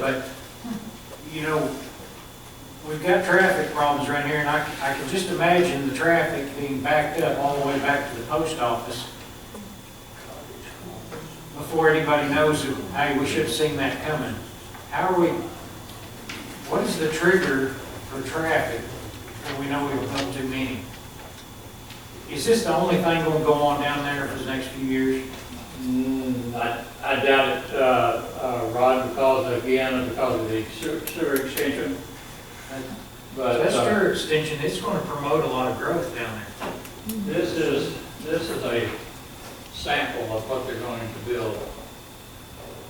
But, you know, we've got traffic problems right here, and I, I can just imagine the traffic being backed up all the way back to the post office before anybody knows, who- hey, we should have seen that coming. How are we, what is the trigger for traffic when we know we were held too many? Is this the only thing gonna go on down there for the next few years? Mm, I I doubt it, uh, uh, Rod, because again, because of the sewer- sewer extension, but That's uh, your extension, it's gonna promote a lot of growth down there. this is, this is a sample of what they're going to build.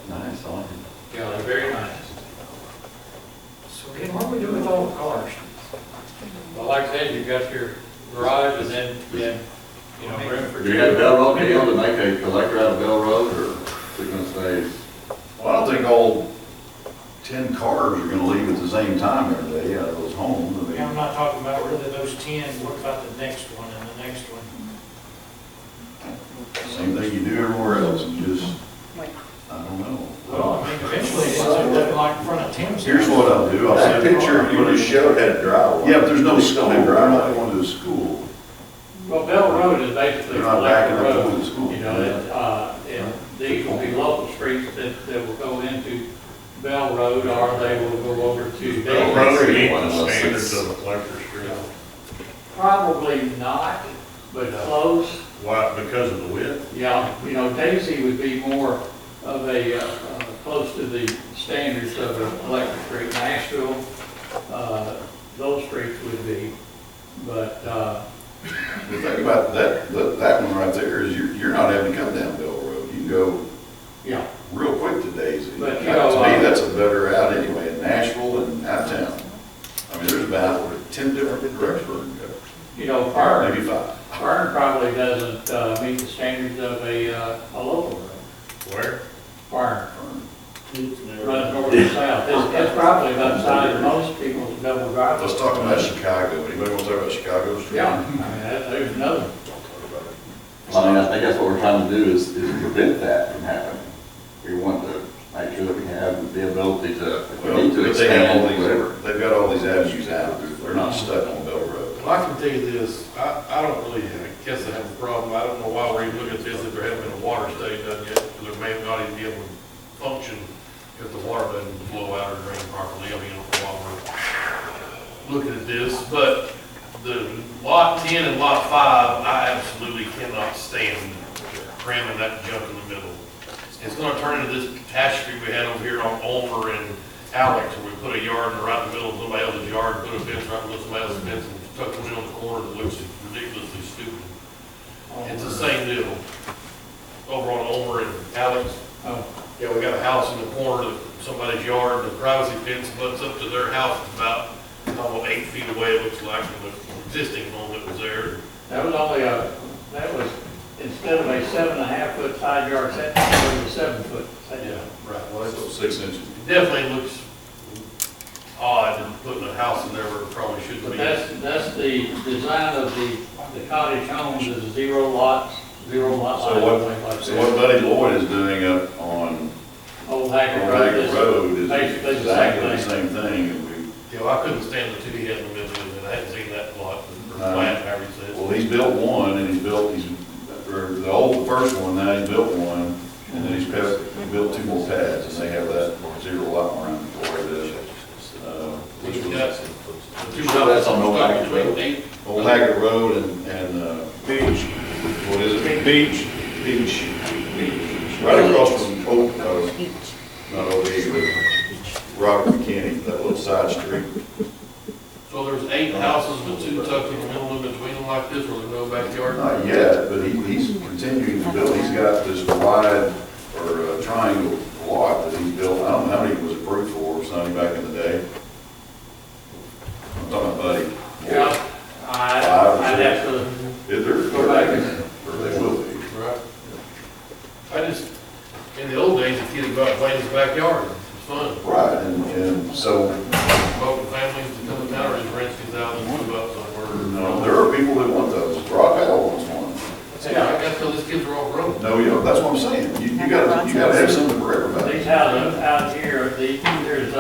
Nice, I like it. Yeah, they're very nice. So then what do we do with all the cars? Well, like I said, you've got your garage and then, then, you know, room for Do you have two. Bell Road deal to make a collector out of Bell Road, or is it gonna stay? Well, I don't think all ten cars are gonna leave at the same time every day out of those homes. I Yeah, I'm mean, not talking about really those ten, what about the next one and the next one? same thing you do everywhere else, you just, I don't know. Well, I mean, eventually, it's gonna look like in front of Tim's. Here's what I'll do, I'll That send. picture you just showed had a drywall. Yeah, but there's no There's school, no they're not driveway. going to the school. Well, Bell Road is basically They're a not backing collector up road. going to the school. You know, that, uh, and these will be local streets that, that will go into Bell Road, or they will go over to Bell Davis. Road meets One of the us standards is- of a collector street, Probably not, but close, why, because of the width? yeah, you know, Daisy would be more of a, uh, uh, close to the standards of an electric street, Nashville, uh, those streets would be, but, uh, The thing about that, that, that one right there is you're, you're not having to come down Bell Road, you can go yeah, real quick to Daisy. But, That- you To know, uh, me, that's a better route anyway, in Nashville and out of town. I mean, there's about ten different directions we can go, you know, prior. maybe five. Fern probably doesn't uh, meet the standards of a, uh, a local road. Where? Fern, running north and south, it's, it's probably about the size of most people's double driveway. Let's talk about Chicago. Anybody want to talk about Chicago? Yeah, I mean, that- there's another, I mean, I think that's what we're trying to do is, is prevent that from happening. We want to make sure that we have the ability to, if we Well, need to but they have all expand, these, whatever. they've got all these avenues out. They're not stuck on Bell Road. Well, I can tell you this, I, I don't really, I guess I have a problem, I don't know why we're even looking at this, if there hasn't been a water study done yet, because there may have not even be able to function if the water doesn't flow out or drain properly, I mean, while we're looking at this, but the lot ten and lot five, I absolutely cannot stand cramming that junk in the middle. It's gonna turn into this catastrophe we had over here on Ulmer and Alex, where we put a yard in right in the middle of somebody else's yard, put a fence right in the middle of somebody else's fence, and tuck one in on the corner that looks ridiculously stupid. It's the same deal. Over on Ulmer and Alex, oh, yeah, we got a house in the corner of somebody's yard, the privacy fence butts up to their house, it's about, oh, eight feet away, it looks like, from the existing home that was there. that was only a, that was, instead of a seven and a half foot side yard setback, it was a seven foot. side yard. right. Well, that's six inches. It Definitely looks odd, and putting a house in there where it probably shouldn't But be. that's, that's the design of the, the cottage homes is zero lots, zero lot So lines, what- things like that. So what Buddy Lloyd is doing up on Old Hackett Road Ragged is Road is basically the same exactly the thing. same thing. And Yeah, well, I couldn't stand the two he had in the middle, of it. I hadn't seen that lot, or flat, however you we- say it. Well, he's built one and he's built, he's, or the old first one, now he's built one. And then he's built, he built two more pads and they have that zero lot around the way that, uh, which He's was got the two Sure, that's on houses Old Hackett between Road. eight- Old Haggard Road and, and, uh. Beach. What is it? Beach. Beach. Right across from Old, uh, not Old Haggard, but Robert McKinney, that little side street. So there's eight houses with two tucked in the middle of between them like this, where there's no backyard. Not yet, but he, he's continuing to build, he's got this wide or uh, triangle lot that he's built, I don't know how many it was approved for, or something back in the day. I'm talking about Buddy. Yeah, Five or I, I'd six. have to, Is there? Go back and- Or they will be. Right. I just, in the old days, the kids go out and play in his backyard, it's fun. Right, and, and so Both families that come down or just rent these out and move up somewhere. No, there are people that want those. Rock Isle wants one. Yeah, I got till these kids are off road. No, you don't, that's what I'm saying, you, you gotta, you gotta have something for everybody. These houses out here, these, there's